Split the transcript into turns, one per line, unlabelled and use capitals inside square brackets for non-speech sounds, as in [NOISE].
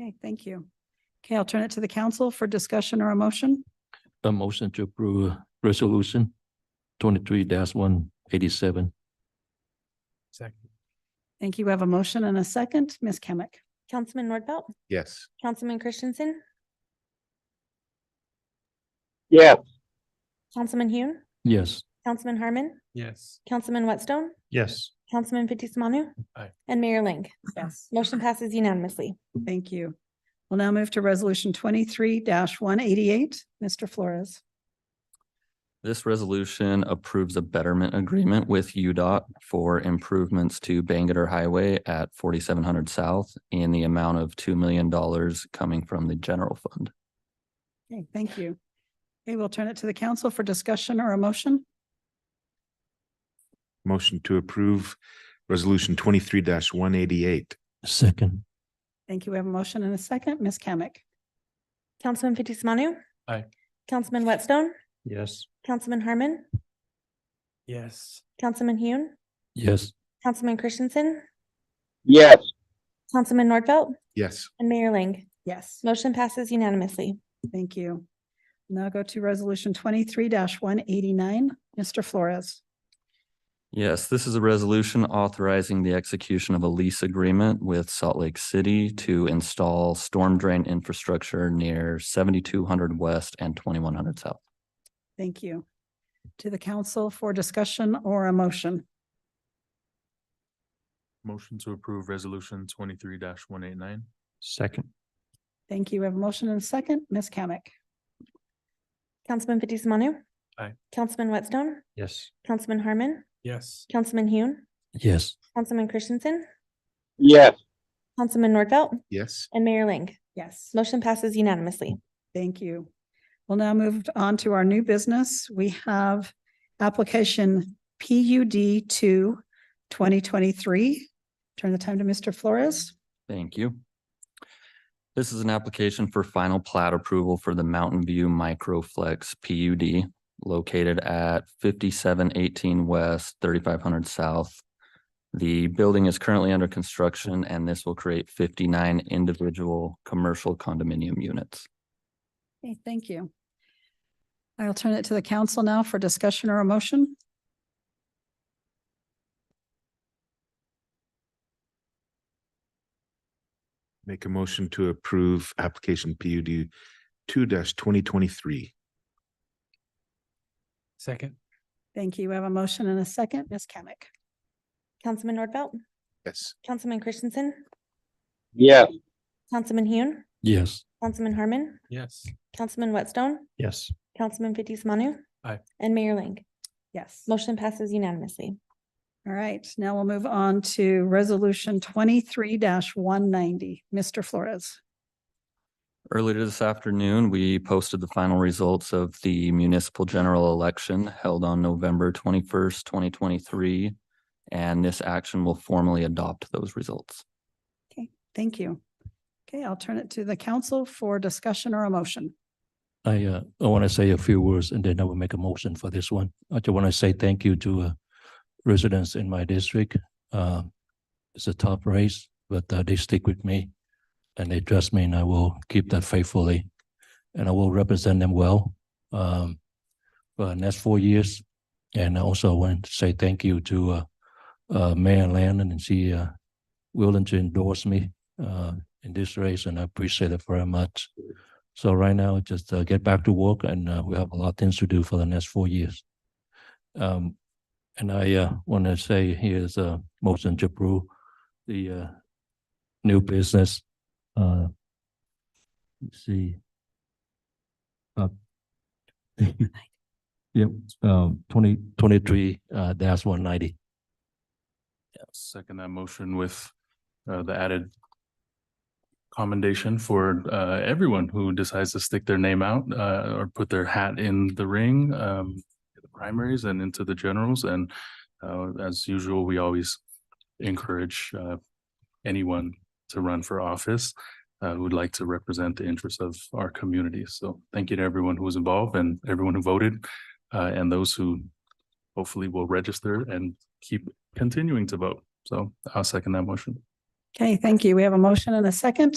Okay, thank you. Okay, I'll turn it to the council for discussion or a motion.
A motion to approve resolution twenty-three one eighty-seven.
Second.
Thank you. We have a motion and a second. Ms. Kamic.
Councilman Nordfelt,
Yes.
Councilman Christensen,
yes,
Councilman Hune,
Yes,
Councilman Harmon,
Yes.
Councilman Whitstone,
Yes.
Councilman Fitzie Umanu.
Aye.
And Mayor Ling.
Yes.
Motion passes unanimously.
Thank you. We'll now move to resolution twenty-three one eighty-eight. Mr. Flores.
This resolution approves a betterment agreement with UDOT for improvements to Bangor Highway at forty-seven hundred South in the amount of two million dollars coming from the general fund.
Okay, thank you. Okay, we'll turn it to the council for discussion or a motion.
Motion to approve resolution twenty-three one eighty-eight.
second,
Thank you. We have a motion and a second. Ms. Kamic.
Councilman Fitzie Umanu.
Aye.
Councilman Whitstone,
Yes.
Councilman Harmon,
Yes.
Councilman Hune,
yes,
Councilman Christensen,
yes,
Councilman Nordfelt,
Yes.
and Mayor Ling.
Yes.
Motion passes unanimously.
Thank you. Now go to resolution twenty-three one eighty-nine. Mr. Flores.
Yes, this is a resolution authorizing the execution of a lease agreement with Salt Lake City to install storm drain infrastructure near seventy-two hundred West and twenty-one hundred South.
Thank you. To the council for discussion or a motion.
Motion to approve resolution twenty-three one eight nine?
second,
Thank you. We have a motion and a second. Ms. Kamic.
Councilman Fitzie Umanu.
Aye.
Councilman Whitstone,
yes,
Councilman Harmon,
Yes.
Councilman Hune,
yes,
Councilman Christensen,
yes,
Councilman Nordfelt,
Yes.
and Mayor Ling.
Yes.
Motion passes unanimously.
Thank you. We'll now move on to our new business. We have application PUD two 2023. Turn the time to Mr. Flores.
Thank you. This is an application for final plat approval for the Mountain View Microflex PUD located at fifty-seven eighteen west, thirty-five hundred south. The building is currently under construction and this will create fifty-nine individual commercial condominium units.
Okay, thank you. I'll turn it to the council now for discussion or a motion.
Make a motion to approve application PUD two twenty twenty-three.
Second.
Thank you. We have a motion and a second. Ms. Kamic.
Councilman Nordfelt,
Yes.
Councilman Christensen,
yes,
Councilman Hune,
yes,
Councilman Harmon,
Yes.
Councilman Whitstone,
yes,
Councilman Fitzie Umanu.
Aye.
And Mayor Ling.
Yes.
Motion passes unanimously.
All right, now we'll move on to resolution twenty-three one ninety. Mr. Flores.
Earlier this afternoon, we posted the final results of the municipal general election held on November twenty-first, twenty twenty-three. And this action will formally adopt those results.
Thank you. Okay, I'll turn it to the council for discussion or a motion.
I, uh, I want to say a few words and then I will make a motion for this one. I just want to say thank you to, uh, residents in my district. Uh, it's a tough race, but, uh, they stick with me and they trust me and I will keep that faithfully. And I will represent them well, um, for the next four years. And I also want to say thank you to, uh, uh, Mayor Landon and she, uh, willing to endorse me, uh, in this race and I appreciate it very much. So right now, just uh, get back to work and uh, we have a lot of things to do for the next four years. Um, and I uh, want to say here's uh, a motion to approve the uh, new business. Uh, let's see. Uh, [LAUGHS] yep, um, 2023 uh, dash 190.
Second that motion with uh the added commendation for uh everyone who decides to stick their name out uh or put their hat in the ring um the primaries and into the generals and uh as usual, we always encourage uh anyone to run for office uh who would like to represent the interests of our community. So thank you to everyone who was involved and everyone who voted uh and those who hopefully will register and keep continuing to vote. So I'll second that motion.
Okay, thank you. We have a motion and a second.